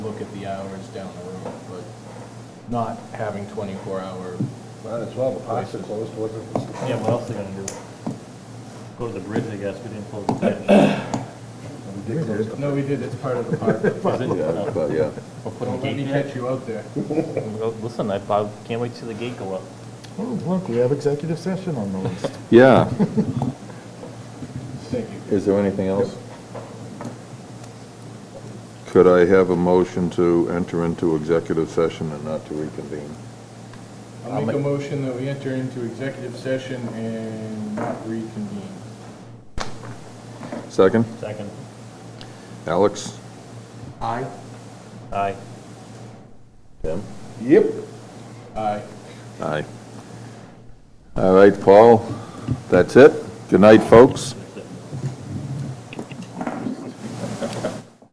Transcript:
look at the hours down the road, but not having twenty-four hour, Might as well, the parks are closed, wasn't it? Yeah, what else they gonna do? Go to the bridge, I guess, we didn't close the bridge. We did close the- no, we did, it's part of the park. Is it? Yeah, but yeah, Don't let me catch you out there. Well, Listen, I I can't wait to see the gate go up. Oh, look, we have executive session on the list. yeah. Thank you. Is there anything else? Could I have a motion to enter into executive session and not to reconvene? I'll make a motion that we enter into executive session and not reconvene. Second? Second. Alex? Aye. Aye. Tim? Yep. Aye. Aye. All right, Paul, that's it. Good night, folks.